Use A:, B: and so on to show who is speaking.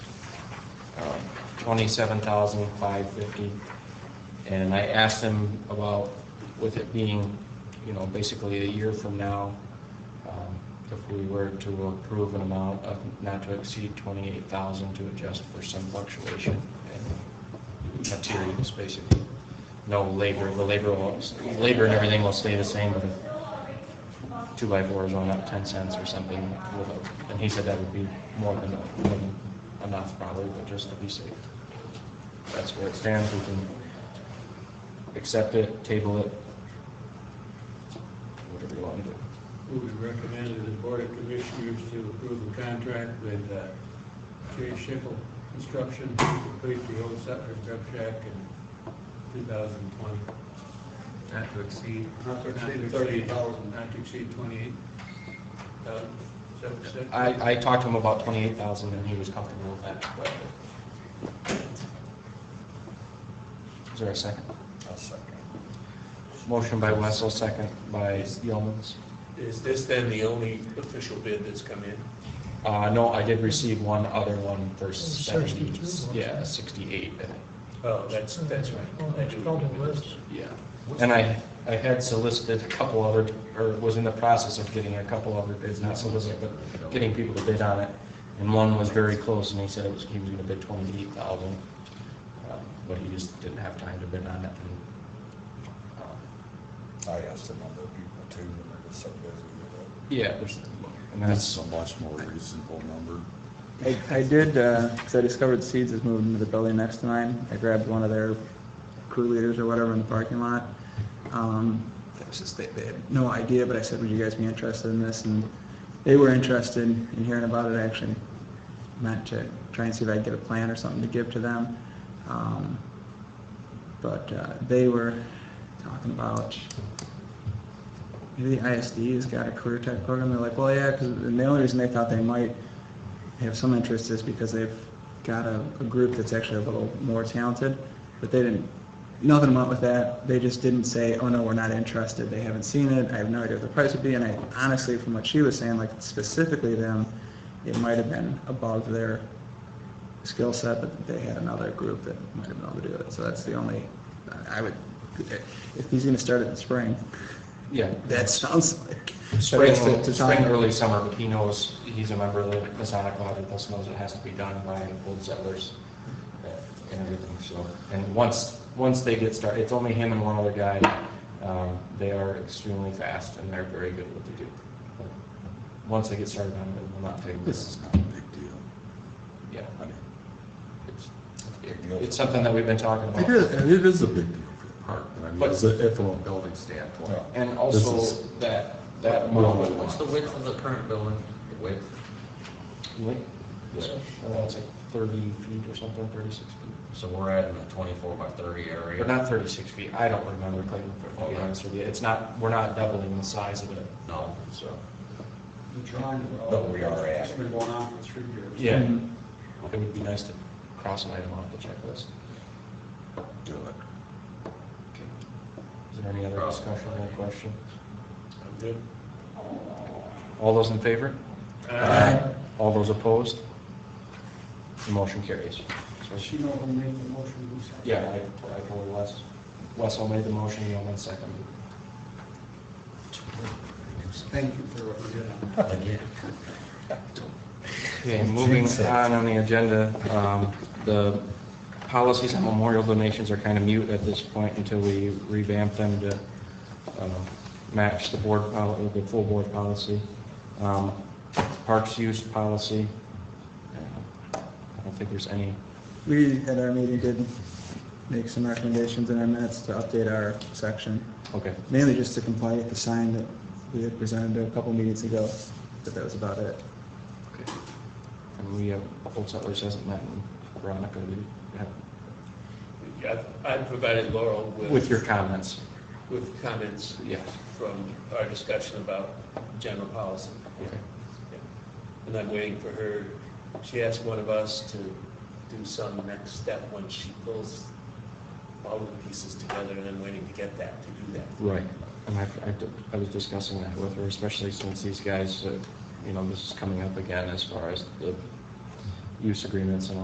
A: twenty-seven thousand five fifty. And I asked them about, with it being, you know, basically a year from now, um, if we were to approve an amount of not to exceed twenty-eight thousand to adjust for some fluctuation in materials, basically. No labor, the labor will, labor and everything will stay the same, but the two by fours on up ten cents or something with a, and he said that would be more than, than enough probably, but just to be safe. That's where it stands, we can accept it, table it, whatever you want to do.
B: Who would recommend to the Board of Commissioners to approve the contract with uh, J. Schickel Construction to complete the old settler contract in 2020?
C: Not to exceed,
B: Not to exceed thirty thousand. Not to exceed twenty-eight thousand, is that what you said?
A: I, I talked to him about twenty-eight thousand and he was comfortable with that, but. Is there a second?
D: I'll second.
A: Motion by Wessel, second by Yeomans.
D: Is this then the only official bid that's come in?
A: Uh, no, I did receive one other one for seventy,
E: 62, wasn't it?
A: yeah, sixty-eight, I think.
D: Oh, that's, that's right.
E: Oh,
D: I
E: that's
D: do
E: probably
D: remember this.
E: less.
A: yeah. And I, I had solicited a couple other, or was in the process of getting a couple other bids, not solicited, but getting people to bid on it. And one was very close, and he said it was, he was gonna bid twenty-eight thousand, Um, but he just didn't have time to bid on it. and, um,
F: I asked a number of people too, and they're just so busy with it.
A: Yeah, there's, and
F: That's
A: that's,
F: a much more reasonable number.
G: I, I did, because I discovered Seeds is moving to the building next to mine. I grabbed one of their crew leaders or whatever in the parking lot. Um, that was just, they, they had no idea, but I said, would you guys be interested in this? And they were interested in hearing about it, I actually. Meant to try and see if I could get a plan or something to give to them. Um, but uh, they were talking about maybe the ISD's got a career type program. They're like, well, yeah, because the only reason they thought they might have some interest is because they've got a, a group that's actually a little more talented, but they didn't. Nothing went with that. They just didn't say, "Oh no, we're not interested." They haven't seen it. I have no idea what the price would be. And I honestly, from what she was saying, like specifically them, it might have been above their skill set, but they had another group that might have been able to do it. So that's the only, I would, if he's gonna start it in spring,
A: yeah.
G: that sounds like.
A: Spring,
G: Right, to- to
A: spring,
G: time.
A: early summer, but he knows, he's a member of the Masonic Lodge with us, knows it has to be done by old settlers uh, and everything, so. And once, once they get started, it's only him and one other guy. Um, They are extremely fast and they're very good at what they do. But Once they get started on it, it will not take,
F: This is not a big deal.
A: yeah.
F: I mean,
A: It's- It's something that we've been talking
F: it is,
A: about.
F: and it is a big deal for the park, but I mean,
A: But-
F: it's a- from a building standpoint.
A: And
F: This
A: also
F: is-
A: that, that.
F: Well,
A: moment-
C: what's the width of the current building, the width?
A: Yeah, uh, It's like thirty feet or something, thirty-six feet.
C: So we're at in the twenty-four by thirty area.
A: But not 36 feet, I don't remember, Clayton, to be honest with you, it's not, we're not doubling the size of it,
C: No.
A: so.
B: The drawing.
F: No, we are at-
B: It's been going on for three years.
A: Yeah,
G: Mhm.
A: it would be nice to cross an item off the checklist.
F: Do it.
A: Okay. Is there any other
C: Cross.
A: discussion or question?
D: I'm good.
A: All those in favor?
G: Aye.
A: All those opposed? The motion carries.
B: Does
A: So-
B: she know who made the motion, who seconded?
A: Yeah, I, I told Wes, Wessel made the motion, you one second.
B: Thank you for what you did on that.
A: Okay, moving on on the agenda, um, the policies on memorial donations are kind of mute at this point until we revamp them to uh, match the board, pol- the full board policy. Um, Parks use policy, uh, I don't think there's any,
G: We, at our meeting, did make some recommendations in our minutes to update our section,
A: okay,
G: mainly just to comply with the sign that we had presented a couple meetings ago, but that was about it.
A: okay. And we have, Old Settlers hasn't met, and Veronica, we have-
D: I I provided Laurel with.
A: with your comments,
D: With comments
A: yeah,
D: from our discussion about general policy.
A: okay.
D: And I'm waiting for her, she asked one of us to do some next step when she pulls all of the pieces together, and I'm waiting to get that, to do that.
A: Right, and I, I d- I was discussing that with her, especially since these guys, uh, you know, this is coming up again as far as the use agreements and all